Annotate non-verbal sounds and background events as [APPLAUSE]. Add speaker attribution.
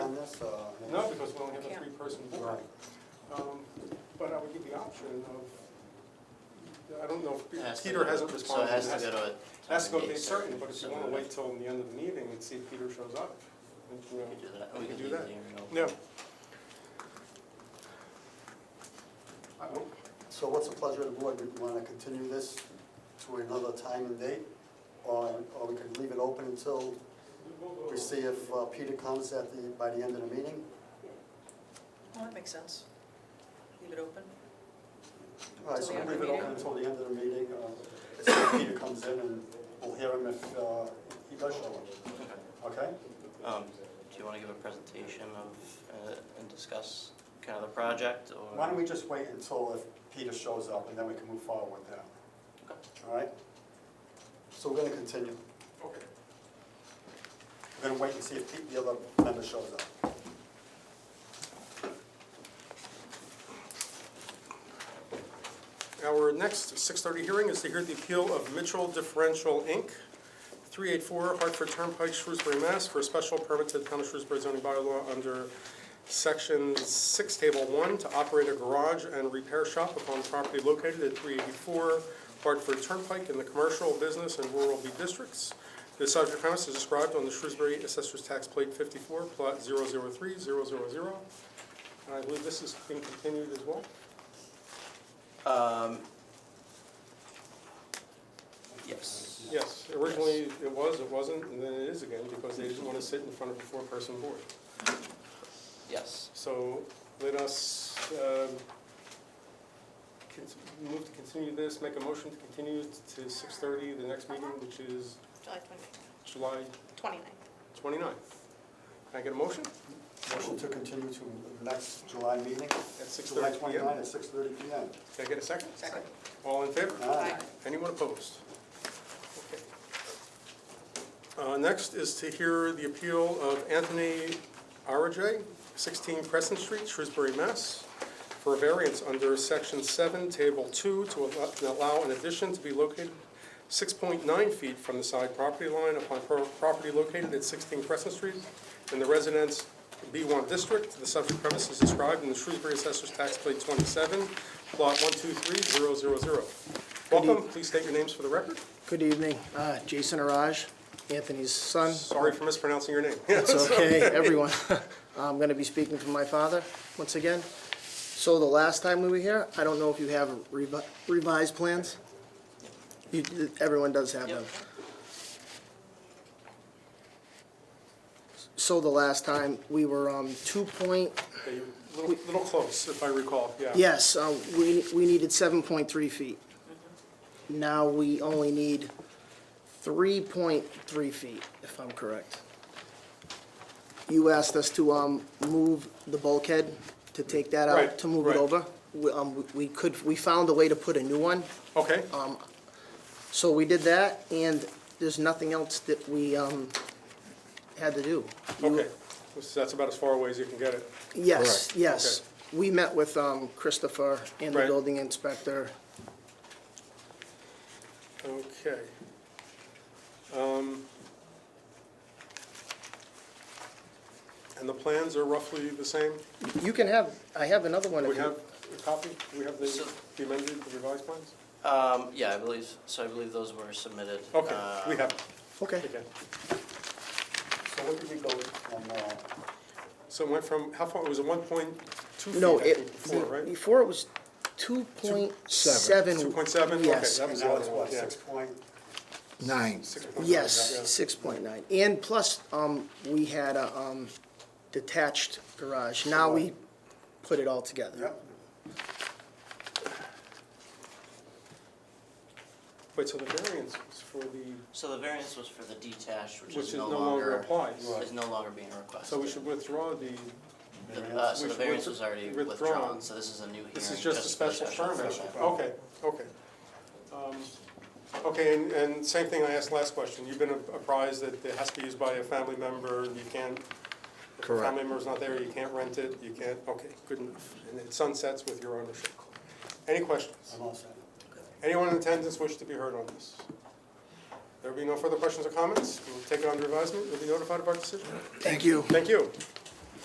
Speaker 1: uh,
Speaker 2: No, because we only have a
Speaker 3: Can't.
Speaker 2: three-person board. Um, But I would give the option of, I don't know,
Speaker 4: It has
Speaker 2: if
Speaker 4: to
Speaker 2: Peter
Speaker 4: go-
Speaker 2: hasn't responded.
Speaker 4: So it has
Speaker 2: It
Speaker 4: to go to a.
Speaker 2: Has to go
Speaker 4: town
Speaker 2: date
Speaker 4: meeting
Speaker 2: certain,
Speaker 4: session.
Speaker 2: but if you
Speaker 4: So
Speaker 2: want to
Speaker 4: we
Speaker 2: wait till the end of the meeting and see if Peter shows up. and, you know,
Speaker 4: could do that. We
Speaker 2: we
Speaker 4: could
Speaker 2: do
Speaker 4: leave
Speaker 2: that.
Speaker 4: the hearing open.
Speaker 2: No. I don't-
Speaker 1: So what's the pleasure of the board? Do you want to continue this to another time and date? Or, or we could leave it open until we see if uh, Peter comes at the, by the end of the meeting?
Speaker 3: Well, that makes sense. Leave it open.
Speaker 1: All right, so
Speaker 3: Till
Speaker 1: we'll
Speaker 3: the
Speaker 1: leave it
Speaker 3: end of the
Speaker 1: open
Speaker 3: meeting?
Speaker 1: until the end of the meeting, uh, see if Peter comes in and we'll hear him if uh, he does show up. Okay?
Speaker 4: Um, do you wanna give a presentation of, uh, and discuss kind of the project or?
Speaker 1: Why don't we just wait until if Peter shows up and then we can move forward with that? All right? So we're gonna continue.
Speaker 2: Okay.
Speaker 1: We're gonna wait and see if Pete- the other member shows up.
Speaker 2: Our next 6:30 hearing is to hear the appeal of Mitchell Differential, Inc., 384 Hartford Turnpike, Shrewsbury, Mass., for a special permit to the Town of Shrewsbury zoning bylaw under Section 6, Table 1, to operate a garage and repair shop upon property located at 384 Hartford Turnpike in the commercial, business, and rural B districts. The subject premise is described on the Shrewsbury Assessor's Tax Plate 54, Plot 003000. And I believe this is being continued as well.
Speaker 4: Um. Yes.
Speaker 2: Yes, originally it was, it wasn't, and then it is again, because they didn't want to sit in front of a four-person board.
Speaker 4: Yes.
Speaker 2: So let us um, cont- move to continue this, make a motion to continue to 6:30, the next meeting, which is
Speaker 5: July 29th,
Speaker 2: July
Speaker 5: 29th.
Speaker 2: 29th. Can I get a motion?
Speaker 1: Motion to continue to the next July meeting,
Speaker 2: At
Speaker 1: July
Speaker 2: 6:30
Speaker 1: 29
Speaker 2: p.m.
Speaker 1: at 6:30 PM.
Speaker 2: Can I get a second?
Speaker 3: Second.
Speaker 2: All in favor?
Speaker 1: Aye.
Speaker 2: Anyone opposed? Okay. Uh, Next is to hear the appeal of Anthony Arajay, 16 Crescent Street, Shrewsbury, Mass., for a variance under Section 7, Table 2, to al- allow an addition to be located 6.9 feet from the side property line upon pro- property located at 16 Crescent Street in the residence B1 district. The subject premise is described in the Shrewsbury Assessor's Tax Plate 27, Plot 123000. Welcome, please state your names for the record.
Speaker 6: Good evening, Uh, Jason Araj, Anthony's son.
Speaker 2: Sorry for mispronouncing your name. [LAUGHS]
Speaker 6: It's okay, everyone. [LAUGHS] I'm going to be speaking for my father once again. So the last time we were here, I don't know if you have revi- revised plans? You, everyone does have them. So the last time, we were um, two point,
Speaker 2: Okay, you're a Little little close, if I recall, yeah.
Speaker 6: yes, uh, we we needed 7.3 feet. Now we only need 3.3 feet, if I'm correct. You asked us to um, move the bulkhead, to take that
Speaker 2: Right,
Speaker 6: out, to move
Speaker 2: right.
Speaker 6: it over. We um, we- we could, we found a way to put a new one,
Speaker 2: Okay,
Speaker 6: Uh, so we did that, and there's nothing else that we um, had to do.
Speaker 2: okay.
Speaker 6: You-
Speaker 2: This- That's about as far away as you can get it.
Speaker 6: Yes,
Speaker 2: Correct.
Speaker 6: yes. We met with um, Christopher and the
Speaker 2: Right.
Speaker 6: building inspector.
Speaker 2: Okay. Um, And the plans are roughly the same?
Speaker 6: You can have, I have another one.
Speaker 2: We
Speaker 6: if you-
Speaker 2: have a copy? We have the
Speaker 4: So-
Speaker 2: the amended, the revised plans?
Speaker 4: Um, yeah, I believe, so I believe those were submitted.
Speaker 2: Okay, we
Speaker 4: um,
Speaker 2: have, it.
Speaker 6: Okay.
Speaker 2: okay.
Speaker 1: So what did we go from, uh,
Speaker 2: So it went from, how far, it was a 1.2 feet,
Speaker 6: No,
Speaker 2: I
Speaker 6: it,
Speaker 2: think, before, right?
Speaker 6: before it was two point seven.
Speaker 2: 2.7? Okay,
Speaker 6: Yes,
Speaker 2: that
Speaker 1: and
Speaker 2: was the
Speaker 1: now
Speaker 2: other
Speaker 1: it's
Speaker 2: one,
Speaker 1: what,
Speaker 2: yeah.
Speaker 1: 6.9?
Speaker 7: Nine.
Speaker 2: 6.7,
Speaker 6: yes,
Speaker 2: yeah.
Speaker 6: six point nine. And plus, um, we had a, um, detached garage. Now we put it all together.
Speaker 1: Yep.
Speaker 2: Wait, so the variance was for the,
Speaker 4: So the variance was for the detached, which
Speaker 2: which
Speaker 4: is no
Speaker 2: longer
Speaker 4: longer,
Speaker 2: applies.
Speaker 4: is no longer being requested.
Speaker 2: So we should withdraw the,
Speaker 4: The- Uh, so
Speaker 2: we
Speaker 4: the
Speaker 2: should
Speaker 4: variance
Speaker 2: withdraw-
Speaker 4: was already
Speaker 2: withdrawn.
Speaker 4: withdrawn, so this is a new hearing.
Speaker 2: this is just a
Speaker 4: for the
Speaker 2: special
Speaker 4: special
Speaker 2: permit.
Speaker 4: permit.
Speaker 2: Okay, okay. Um, Okay, and, and same thing I asked last question. You've been apprised that it has to be used by a family member, you can't, if a
Speaker 7: Correct.
Speaker 2: family member's not there, you can't rent it, you can't, okay, good enough. And it sunsets with your ownership. Any questions?
Speaker 1: I'm all set.
Speaker 2: Anyone in attendance wish to be heard on this? There will be no further questions or comments. We'll take it under advisement. You'll be notified of our decision.
Speaker 6: Thank you.
Speaker 2: Thank you.